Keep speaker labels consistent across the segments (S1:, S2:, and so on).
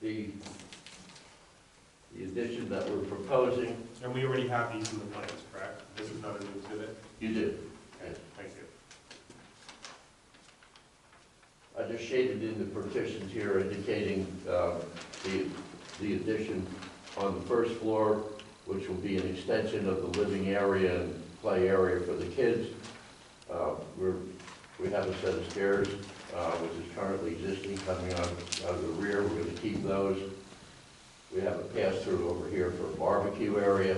S1: the, the additions that we're proposing.
S2: And we already have these in the plans, correct? This is not a new exhibit?
S1: You do.
S2: Okay, thank you.
S1: I just shaded in the partitions here indicating uh, the, the addition on the first floor, which will be an extension of the living area and play area for the kids. Uh, We're, we have a set of stairs, uh, which is currently existing, coming out out of the rear, we're gonna keep those. We have a pass-through over here for a barbecue area,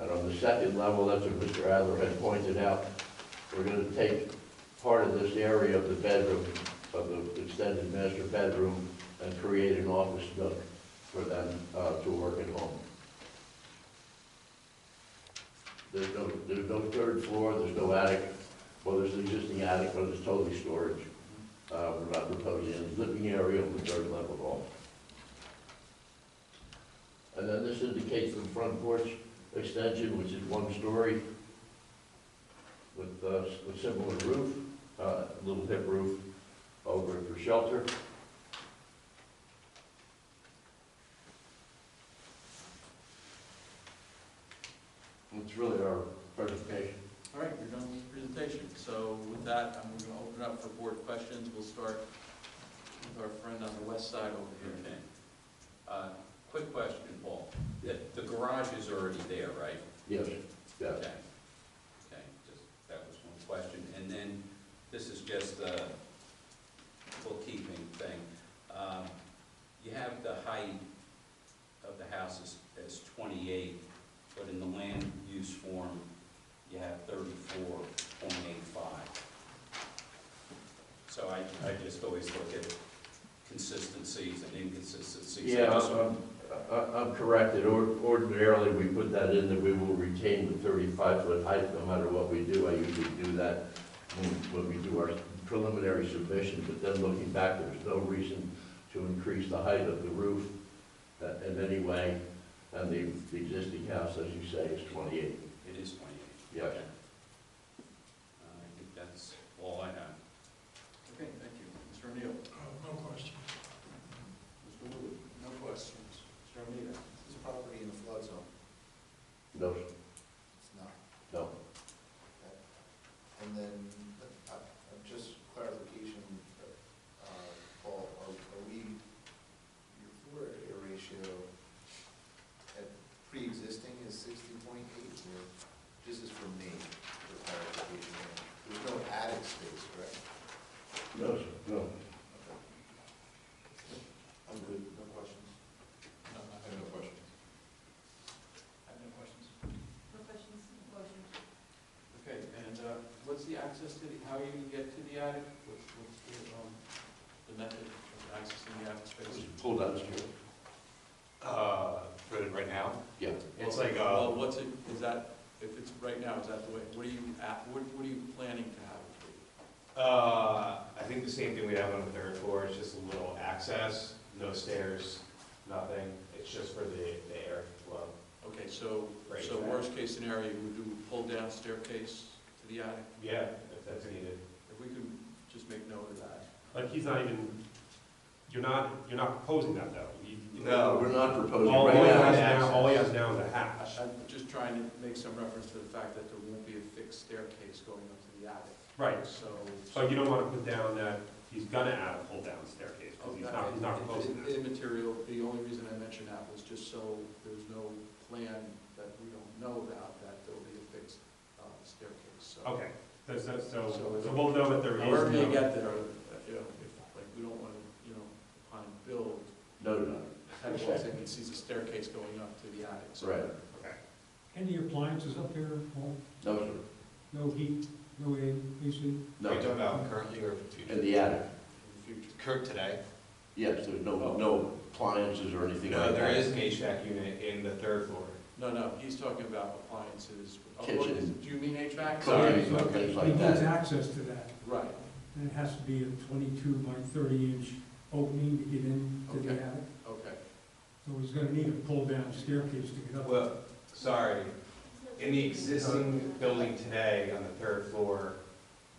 S1: and on the second level, that's what Mr. Adler had pointed out, we're gonna take part of this area of the bedroom, of the extended master bedroom, and create an office nook for them uh, to work at home. There's no, there's no third floor, there's no attic, well, there's an existing attic, but it's totally storage. Uh, We're not proposing any living area on the third level at all. And then this indicates the front porch extension, which is one story with uh, a similar roof, uh, little hip roof over it for shelter. That's really our presentation.
S3: All right, you're done with the presentation. So with that, I'm going to open up for board questions. We'll start with our friend on the west side over here.
S4: Okay. Uh, Quick question, Paul. The the garage is already there, right?
S1: Yes, yes.
S4: Okay. Okay, just, that was one question. And then, this is just a bookkeeping thing. Um, You have the height of the house as- as 28, but in the land use form, you have 34.85. So I, I just always look at consistencies and inconsistencies. I
S1: Yeah,
S4: just-
S1: I'm, I'm- I'm corrected. Or- Ordinarily, we put that in that we will retain the 35-foot height no matter what we do. I usually do that when- when we do our preliminary submission, but then looking back, there's no reason to increase the height of the roof uh, in any way. And the the existing house, as you say, is 28.
S4: It is 28.
S1: Yeah.
S4: Okay. Uh, I think that's all I have.
S3: Okay, thank you. Mr. O'Neill?
S5: No question.
S3: Mr. Wood? No questions. Mr. O'Neill?
S6: Is this property in the flood zone?
S1: No,
S6: It's not.
S1: no.
S6: And then, uh, uh, just clarification, uh, Paul, are are we, your floor area ratio at pre-existing is sixty point eight, or, this is for me, for clarification. There's no attic space, correct?
S1: No, no.
S6: Okay. I'm good, no questions?
S3: No, I
S6: have no questions.
S3: have no questions.
S7: No questions, motion.
S3: Okay, and uh, what's the access to the, how you get to the attic? What's, what's the, um, the method of accessing the attic space?
S1: Pull down here.
S2: Uh, for right now?
S1: Yeah.
S2: It's like, uh,
S3: Well, what's it, is that, if it's right now, is that the way, what are you, at- what, what are you planning to have? it be?
S2: uh, I think the same thing we have on the third floor, it's just a little access, no stairs, nothing. It's just for the, the air flow.
S3: Okay, so,
S2: Right.
S3: so worst case scenario, would you pull down staircase to the attic?
S2: Yeah, if that's needed.
S3: If we could just make note of that.
S2: Like, he's not even, you're not, you're not proposing that though. You- you-
S1: No, we're not proposing
S2: All
S1: right
S2: all he
S1: now.
S2: has now, all he has now is a hatch.
S3: I- I'm just trying to make some reference to the fact that there won't be a fixed staircase going up to the attic,
S2: Right,
S3: so.
S2: so you don't want to put down that he's gonna add a pull down staircase, because Oh, he's not, he's not proposing that.
S3: Immaterial, the only reason I mentioned that was just so there's no plan that we don't know about, that there'll be a fixed uh, staircase, so.
S2: Okay, so, so, so so we'll know that there is.
S3: However you
S2: no-
S3: get there, uh, you know, if, like, we don't want to, you know, upon build,
S1: No, no,
S3: have walls in, he sees a staircase going up to the attic, so.
S1: right.
S2: Okay.
S5: Any appliances up there, Paul?
S1: No, sir.
S5: No heat, no AC?
S1: No,
S5: about
S6: currently or
S1: in the attic.
S3: In the future.
S6: Current today?
S1: Yes, there's no, no appliances or anything like
S8: No,
S1: that.
S8: there is an HVAC unit in the third floor.
S3: No, no, he's talking about appliances. Oh, what
S1: Kitchen.
S3: is- Do you mean HVAC?
S1: Sorry,
S3: Sorry.
S1: things
S5: He
S1: like
S5: needs
S1: that.
S5: access to that,
S3: Right,
S5: and it has to be a twenty-two by thirty inch opening to get into the
S3: Okay.
S5: attic.
S3: okay.
S5: So he's gonna need a pull-down staircase to get up.
S8: Well, sorry, in the existing building today on the third floor,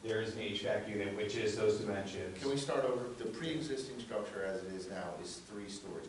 S8: there is an HVAC unit, which is those dimensions.
S6: Can we start over? The pre-existing structure as it is now is three stories.